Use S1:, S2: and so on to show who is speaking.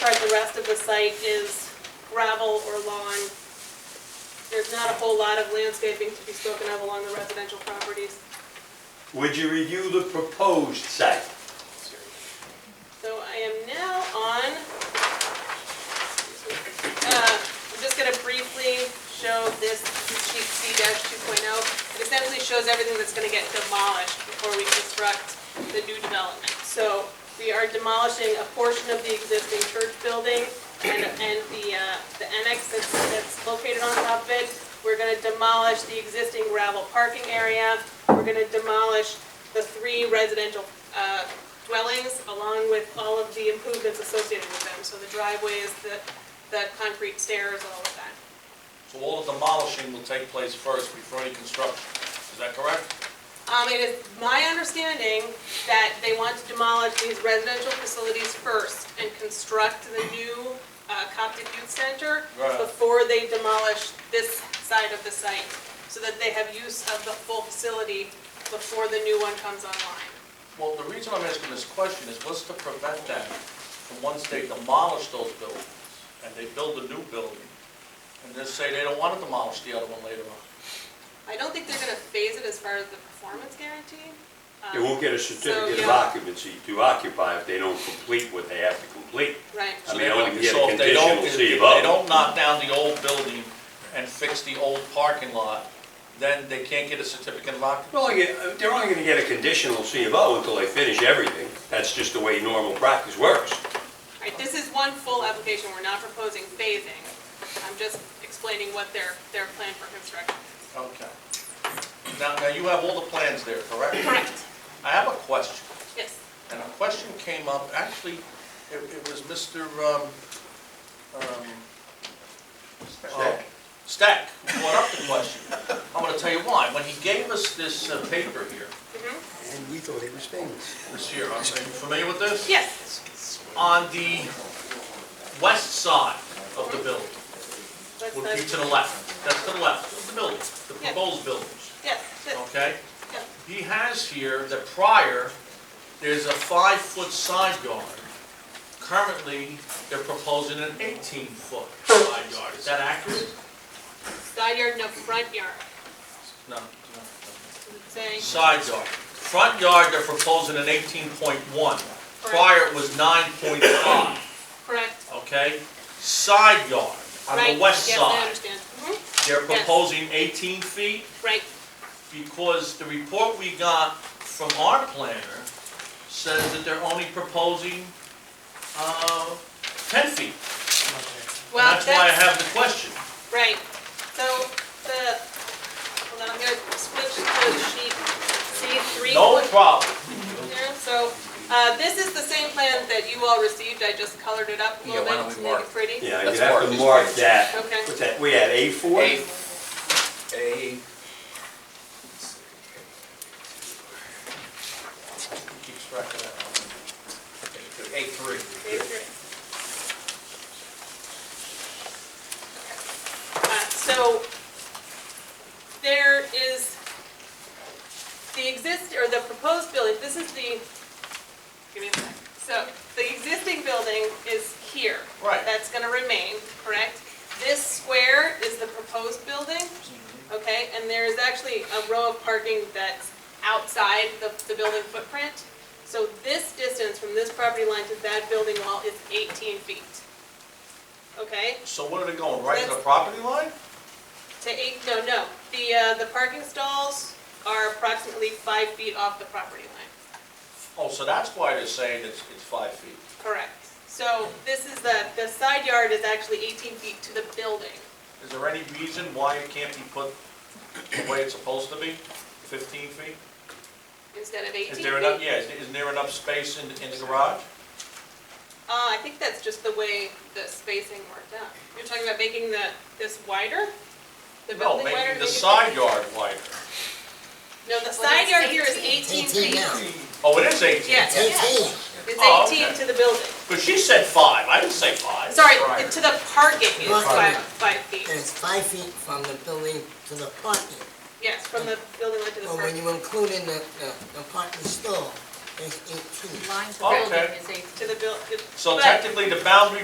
S1: part, the rest of the site is gravel or lawn. There's not a whole lot of landscaping to be spoken of along the residential properties.
S2: Would you review the proposed site?
S1: So I am now on, uh, I'm just gonna briefly show this sheet C two oh. It essentially shows everything that's gonna get demolished before we construct the new development. So we are demolishing a portion of the existing church building and, and the, uh, the annex that's, that's located on top of it. We're gonna demolish the existing gravel parking area. We're gonna demolish the three residential, uh, dwellings along with all of the improvements associated with them, so the driveways, the, the concrete stairs, all of that.
S3: So all the demolishing will take place first before any construction, is that correct?
S1: Um, it is my understanding that they want to demolish these residential facilities first and construct the new, uh, Coptic Youth Center
S3: Right.
S1: before they demolish this side of the site, so that they have use of the full facility before the new one comes online.
S3: Well, the reason I'm asking this question is what's to prevent that from once they demolish those buildings and they build a new building and just say they don't want to demolish the other one later on?
S1: I don't think they're gonna phase it as far as the performance guarantee.
S2: They
S1: um,
S2: won't get a
S1: So,
S2: certificate of
S1: yeah.
S2: occupancy to occupy if they don't complete what they have to complete.
S1: Right.
S2: I mean, I
S3: So
S2: wouldn't get a
S3: if they don't-
S2: conditional C of
S3: If
S2: O.
S3: they don't knock down the old building and fix the old parking lot, then they can't get a certificate of occupancy?
S2: They're only, get- they're only gonna get a conditional C of O until they finish everything. That's just the way normal practice works.
S1: All right, this is one full application, we're not proposing phasing. I'm just explaining what their, their plan for construction is.
S3: Okay. Now, now you have all the plans there, correct?
S1: Correct,
S3: I have a question.
S1: yes.
S3: And a question came up, actually, it, it was Mr. um, um, uh, Stack who brought up the question. I'm gonna tell you why. When he gave us this uh, paper here,
S4: And we thought he was famous.
S3: this here, are you familiar with this?
S1: Yes,
S3: On the west side of the building,
S1: that's,
S3: would be
S1: that's,
S3: to the left, that's to the left of the building, the
S1: Yeah.
S3: proposed buildings,
S1: yes, that-
S3: okay?
S1: Yeah.
S3: He has here that prior, there's a five-foot side yard. Currently, they're proposing an eighteen-foot side yard, is that accurate?
S1: side yard, no front yard,
S3: No. no,
S1: It's
S3: no.
S1: saying,
S3: Side yard. Front yard, they're proposing an eighteen point one. Prior, it was nine point five,
S1: correct,
S3: okay? Side yard, on
S1: right,
S3: the west
S1: yes, I
S3: side,
S1: understand. Mhm.
S3: they're
S1: yes.
S3: proposing eighteen feet.
S1: Right,
S3: because the report we got from our planner says that they're only proposing, uh, ten feet. And
S1: well,
S3: that's why I
S1: that's,
S3: have the question.
S1: right, so the, hold on, I'm gonna switch to the sheet C three.
S3: No problem.
S1: there. So, uh, this is the same plan that you all received, I just colored it up a
S5: Yeah,
S1: little
S5: why don't
S1: bit to
S5: we
S1: make
S5: mark-
S1: it pretty.
S2: Yeah,
S5: Let's
S2: you have
S5: mark
S2: to
S5: these
S2: mark
S5: points.
S2: that.
S1: Okay. Uh,
S2: What's that, we had A four?
S5: A, A,
S3: Keeps track of that.
S5: A three.
S1: Uh, So there is the exist, or the proposed building, this is the, give me a sec. So the existing building is here.
S3: Right.
S1: That's going to remain, correct? This square is the proposed building, okay? And there's actually a row of parking that's outside the, the building footprint. So this distance from this property line to that building wall is 18 feet. Okay,
S3: So what are they going, right to the property line?
S1: to eight, no, no, the, uh, the parking stalls are approximately five feet off the property line.
S3: Oh, so that's why they're saying it's, it's five feet.
S1: Correct. So this is the, the side yard is actually 18 feet to the building.
S3: Is there any reason why it can't be put the way it's supposed to be, fifteen feet?
S1: Instead of 18
S3: Is
S1: feet?
S3: there enough, yeah, is- isn't there enough space in, in the garage?
S1: Uh, I think that's just the way the spacing worked out. You're talking about making the, this wider? The
S3: No,
S1: building wider?
S3: making
S1: to
S3: the
S1: make it-
S3: side yard wider.
S1: No, the
S6: Well,
S1: side
S6: it's
S1: yard here is 18
S6: 18.
S1: feet.
S6: now.
S3: Oh, it is eighteen?
S1: Yes, yes.
S6: Eighteen.
S3: Oh,
S1: It's 18
S3: okay.
S1: to the building.
S3: But she said five, I didn't say five.
S1: Sorry,
S3: Right.
S1: to the parking is five,
S6: Parking.
S1: five
S6: And
S1: feet.
S6: it's five feet from the building to the parking.
S1: Yes, from the building line to the
S6: But Oh, when
S1: parking,
S6: you include in the, the, the parking stall, it's eighteen.
S7: Lines of
S3: Okay.
S7: building is eight
S1: to the buil, but-
S3: So technically, the boundary